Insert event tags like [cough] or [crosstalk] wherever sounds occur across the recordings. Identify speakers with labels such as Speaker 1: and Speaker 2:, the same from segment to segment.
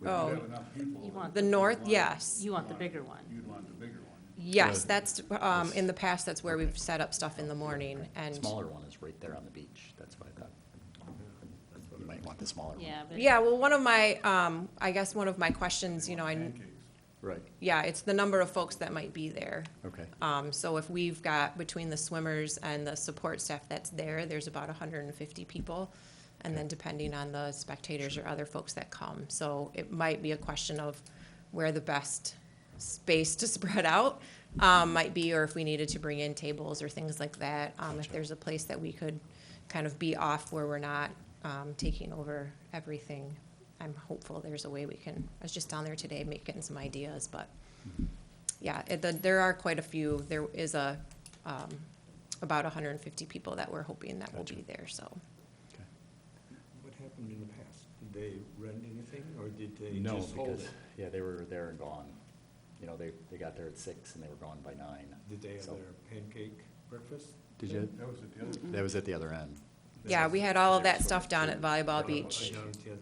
Speaker 1: We don't
Speaker 2: Oh.
Speaker 1: have enough people.
Speaker 3: You
Speaker 1: that
Speaker 3: want
Speaker 2: The
Speaker 1: would
Speaker 2: north,
Speaker 1: want-
Speaker 2: yes.
Speaker 3: You want the bigger one.
Speaker 1: You'd want the bigger one.
Speaker 2: Yes,
Speaker 4: Yeah.
Speaker 2: that's, um, in the past, that's where we've set up stuff in the morning and,
Speaker 5: Smaller one is right there on the beach, that's what I thought. You might want the smaller one.
Speaker 3: Yeah, but.
Speaker 2: yeah, well, one of my, um, I guess one of my questions, you know, I,
Speaker 1: Pancakes.
Speaker 5: Right,
Speaker 2: yeah, it's the number of folks that might be there.
Speaker 5: okay.
Speaker 2: Um, so if we've got, between the swimmers and the support staff that's there, there's about hundred and fifty people. And then depending on the spectators or other folks that come. So it might be a question of where the best space to [laughs] spread out, um, might be, or if we needed to bring in tables or things like that. Um, if there's a place that we could kind of be off where we're not, um, taking over everything. I'm hopeful there's a way we can, I was just down there today making some ideas, but yeah, it, the- there are quite a few, there is a, um, about hundred and fifty people that we're hoping that will
Speaker 5: Gotcha.
Speaker 2: be there, so.
Speaker 5: Okay.
Speaker 6: What happened in the past? Did they rent anything, or did they
Speaker 5: No,
Speaker 6: just hold
Speaker 5: because,
Speaker 6: it?
Speaker 5: yeah, they were there and gone. You know, they, they got there at six and they were gone by nine.
Speaker 6: Did they have
Speaker 5: So-
Speaker 6: their pancake breakfast?
Speaker 5: Did you,
Speaker 1: That was at the other.
Speaker 5: that was at the other end.
Speaker 2: Yeah, we had all of that stuff down at
Speaker 6: Or
Speaker 2: Volleyball
Speaker 6: was it
Speaker 2: Beach.
Speaker 6: down at the other-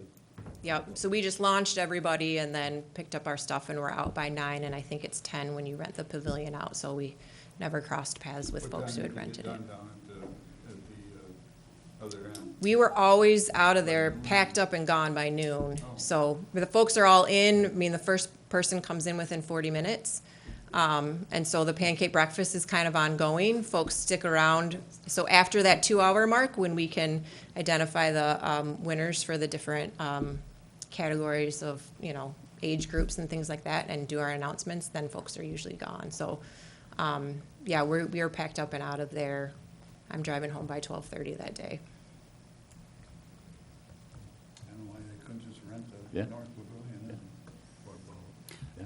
Speaker 2: Yep, so we just launched everybody and then picked up our stuff and we're out by nine, and I think it's ten when you rent the pavilion out, so we never crossed paths with
Speaker 1: What
Speaker 2: folks
Speaker 1: time
Speaker 2: who
Speaker 1: did
Speaker 2: had
Speaker 1: you get
Speaker 2: rented it.
Speaker 1: done down at the, at the, uh, other end.
Speaker 2: We were always out of there, packed up and gone by noon.
Speaker 1: Oh.
Speaker 2: So the folks are all in. I mean, the first person comes in within 40 minutes. Um, and so the pancake breakfast is kind of ongoing. Folks stick around. So after that two hour mark, when we can identify the um, winners for the different um, categories of, you know, age groups and things like that and do our announcements, then folks are usually gone. So, um, yeah, we're, we are packed up and out of there. I'm driving home by 12:30 that day.
Speaker 1: I don't know why they couldn't just rent the
Speaker 5: Yeah.
Speaker 1: north pavilion and, or both.
Speaker 5: Yeah.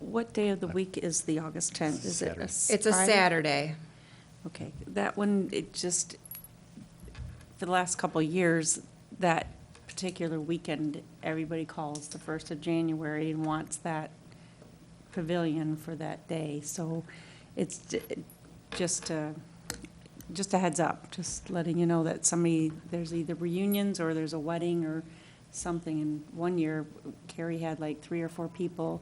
Speaker 7: What day of the week is the August 10th? Is it a
Speaker 5: Saturday.
Speaker 7: s-
Speaker 2: It's a
Speaker 7: Friday?
Speaker 2: Saturday.
Speaker 7: Okay, that one, it just, for the last couple of years, that particular weekend, everybody calls the first of January and wants that pavilion for that day. So it's j- just a, just a heads up, just letting you know that somebody, there's either reunions or there's a wedding or something. And one year, Carrie had like three or four people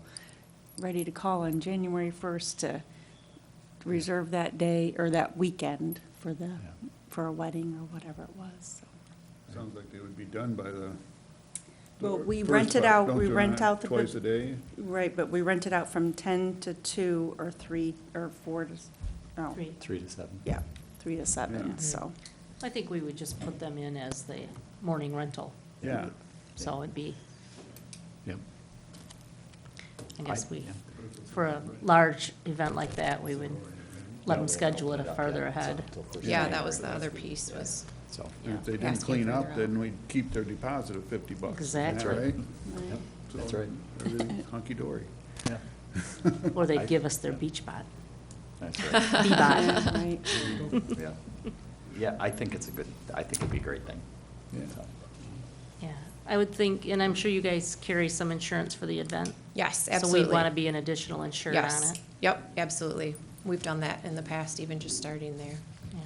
Speaker 7: ready to call on January 1st to reserve that day or that weekend for the,
Speaker 5: Yeah.
Speaker 7: for a wedding or whatever it was. so.
Speaker 1: Sounds like they would be done by the.
Speaker 7: Well, we
Speaker 1: first,
Speaker 7: rent it
Speaker 1: but
Speaker 7: out-
Speaker 1: don't
Speaker 7: we
Speaker 1: you
Speaker 7: rent out the-
Speaker 1: Twice a day?
Speaker 7: Right, but we rent it out from 10 to 2 or 3 or 4 to, s- no.
Speaker 3: Three.
Speaker 5: Three to seven.
Speaker 7: Yeah, 3 to
Speaker 1: Yeah.
Speaker 7: 7, so.
Speaker 3: I think we would just put them in as the morning rental.
Speaker 1: Yeah.
Speaker 3: So it'd be,
Speaker 5: Yep.
Speaker 3: I guess
Speaker 5: I-
Speaker 3: we,
Speaker 5: yeah.
Speaker 3: for a large event like that, we would let them
Speaker 5: Yeah, we haven't
Speaker 3: schedule it
Speaker 5: opened up
Speaker 3: farther
Speaker 5: yet, so
Speaker 3: ahead.
Speaker 5: until first
Speaker 2: Yeah,
Speaker 5: of
Speaker 2: that was the
Speaker 5: January.
Speaker 2: other piece was,
Speaker 5: So,
Speaker 3: Yeah.
Speaker 1: If they didn't
Speaker 2: Asking
Speaker 1: clean
Speaker 2: further
Speaker 1: up,
Speaker 2: out.
Speaker 1: then we'd keep their deposit of fifty bucks. Isn't that
Speaker 3: Exactly.
Speaker 1: right?
Speaker 5: yep, that's
Speaker 1: So,
Speaker 5: right.
Speaker 1: everything's Hunky-dory.
Speaker 5: Yeah.
Speaker 3: Or
Speaker 5: I-
Speaker 3: they'd give us their
Speaker 2: [laughs]
Speaker 3: beach bot.
Speaker 5: That's right.
Speaker 7: Yeah, right.
Speaker 5: Yeah, yeah, I think it's a good, I think it'd be a great thing.
Speaker 1: Yeah.
Speaker 5: So,
Speaker 3: Yeah, I would think, and I'm sure you guys carry some insurance for the event.
Speaker 2: yes,
Speaker 3: So
Speaker 2: absolutely.
Speaker 3: we'd want to be an additional insured on
Speaker 2: Yes.
Speaker 3: it.
Speaker 2: Yep, absolutely. We've done that in the past, even just starting there.
Speaker 3: Yeah.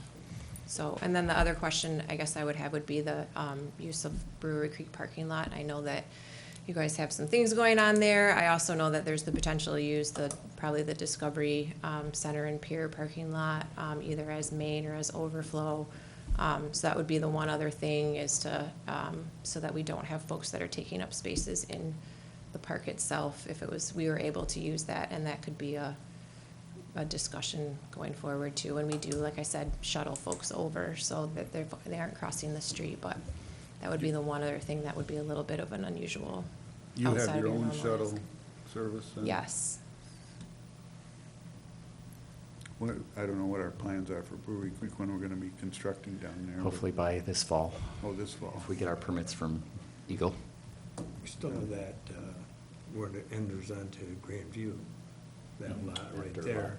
Speaker 2: So, and then the other question I guess I would have would be the um, use of Brewery Creek parking lot. I know that you guys have some things going on there. I also know that there's the potential to use the, probably the Discovery um, Center and Pier parking lot, um, either as main or as overflow. Um, So that would be the one other thing is to, um, so that we don't have folks that are taking up spaces in the park itself. If it was, we were able to use that, and that could be a, a discussion going forward too, when we do, like I said, shuttle folks over so that they're, they aren't crossing the street, but that would be the one other thing that would be a little bit of an unusual.
Speaker 1: You
Speaker 2: outside
Speaker 1: have
Speaker 2: of
Speaker 1: your own
Speaker 2: normalized.
Speaker 1: shuttle service? then?
Speaker 2: Yes.
Speaker 1: What, I don't know what our plans are for Brewery Creek, when we're gonna be constructing down there. but-
Speaker 5: Hopefully by this fall,
Speaker 1: Oh, this fall.
Speaker 5: if we get our permits from Eagle.
Speaker 6: We still have that, uh, where it enters onto Grandview, that lot right
Speaker 5: Mm-hmm. After lot.
Speaker 6: there.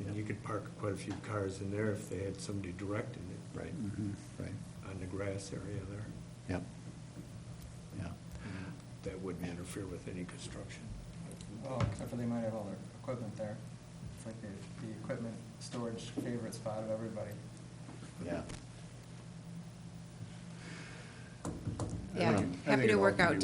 Speaker 6: And you
Speaker 5: Yeah.
Speaker 6: could park quite a few cars in there if they had somebody directing it
Speaker 5: Right,
Speaker 1: Mhm.
Speaker 5: right,
Speaker 6: on the grass area there.
Speaker 5: yep. Yeah,
Speaker 6: That wouldn't interfere with any construction.
Speaker 8: Well, except for they might have all their equipment there. It's like the, the equipment storage favorite spot of everybody.
Speaker 5: yeah.
Speaker 1: think- I
Speaker 2: Yeah, happy
Speaker 1: think
Speaker 2: to
Speaker 1: it'll
Speaker 2: work
Speaker 1: ultimately
Speaker 2: out